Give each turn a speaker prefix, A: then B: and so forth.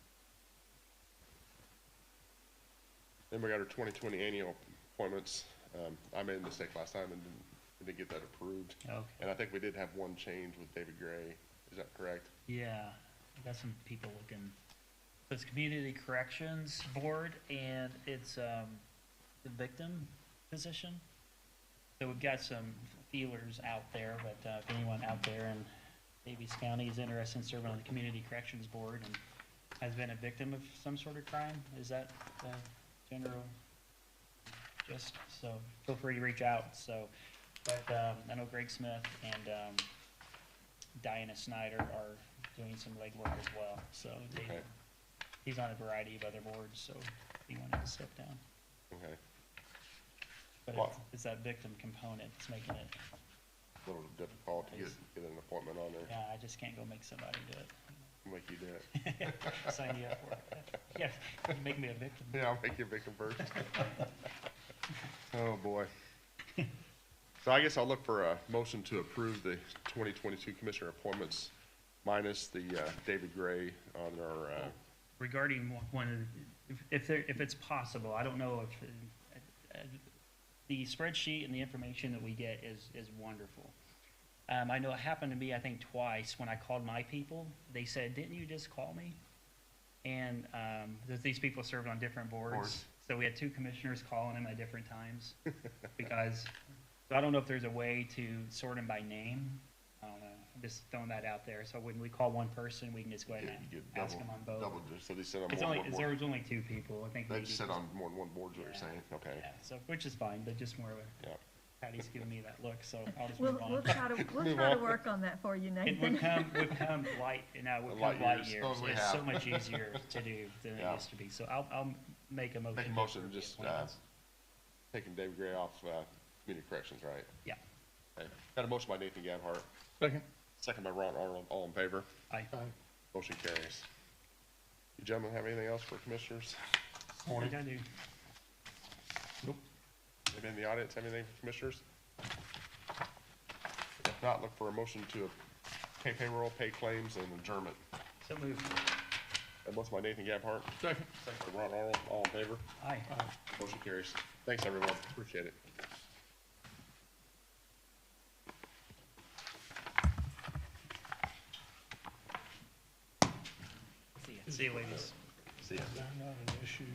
A: Then we got our twenty twenty annual appointments. Um, I made a mistake last time and didn't, we didn't get that approved.
B: Okay,
A: And I think we did have one change with David Gray. Is that correct?
B: yeah, I got some people looking. So It's Community Corrections Board and it's, um, the victim position. So we've got some feelers out there, but, uh, if anyone out there in Davies County is interested in serving on the Community Corrections Board and has been a victim of some sort of crime, is that, uh, general? Just, so feel free to reach out, so, but, um, I know Greg Smith and, um, Diana Snyder are doing some legwork as well, so they,
A: Okay.
B: he's on a variety of other boards, so if he wanted to step down.
A: Okay,
B: But
A: Well-
B: it's, it's that victim component that's making it,
A: a little difficult to get, get an appointment on there.
B: yeah, I just can't go make somebody do it.
A: Make you do it.
B: Sign you up for it. Yeah, you make me a victim.
A: Yeah, I'll make you a victim first. Oh, boy. So I guess I'll look for a motion to approve the twenty twenty-two commissioner appointments minus the, uh, David Gray on our, uh,
B: Regarding one- one, of the- if, if there, if it's possible, I don't know if, uh, uh, the spreadsheet and the information that we get is, is wonderful. Um, I know it happened to me, I think, twice when I called my people. They said, didn't you just call me? And, um, that these people served on different boards.
A: Boards.
B: So we had two commissioners calling them at different times because, so I don't know if there's a way to sort them by name. I don't know, I'm just throwing that out there. So when we call one person, we can just go ahead
A: get,
B: and
A: get
B: ask
A: double,
B: them on both.
A: double, so they said on
B: It's
A: more,
B: only,
A: more,
B: it's- there
A: more.
B: was only two people, I think.
A: They
B: maybe.
A: just said on more than one board, is what you're
B: Yeah.
A: saying, okay,
B: Yeah, so, which is fine, but just more of a,
A: yeah.
B: Patty's giving me that look, so I'll just
C: We'll,
B: move on.
C: we'll try to, we'll
A: Move
C: try to
A: on.
C: work on that for you,
B: It would
C: Nathan.
B: come, would come light, you know, it would
A: Light
B: come light
A: years,
B: years.
A: those we
B: It's so
A: have.
B: much easier to do than it
A: Yeah.
B: used to be. So I'll, I'll make a motion.
A: Make a
B: to
A: motion,
B: approve the
A: just, uh,
B: appointments.
A: Taking David Gray off, uh, community corrections, right?
B: Yeah,
A: Okay. Got a motion by Nathan Gabhart,
D: Second.
A: second by Ron Arnold, all in favor?
B: I,
A: Motion carries. You gentlemen have anything else for commissioners?
B: I think I do.
A: Anybody in the audience have anything for commissioners? If not, look for a motion to pay payroll, pay claims, and adjournment.
B: So moved.
A: A motion by Nathan Gabhart,
D: Second.
A: second by Ron Arnold, all in favor?
B: Aye.
A: Motion carries. Thanks, everyone. Appreciate it.
B: See ya. See you, ladies.
A: See ya.
D: They're not an issue.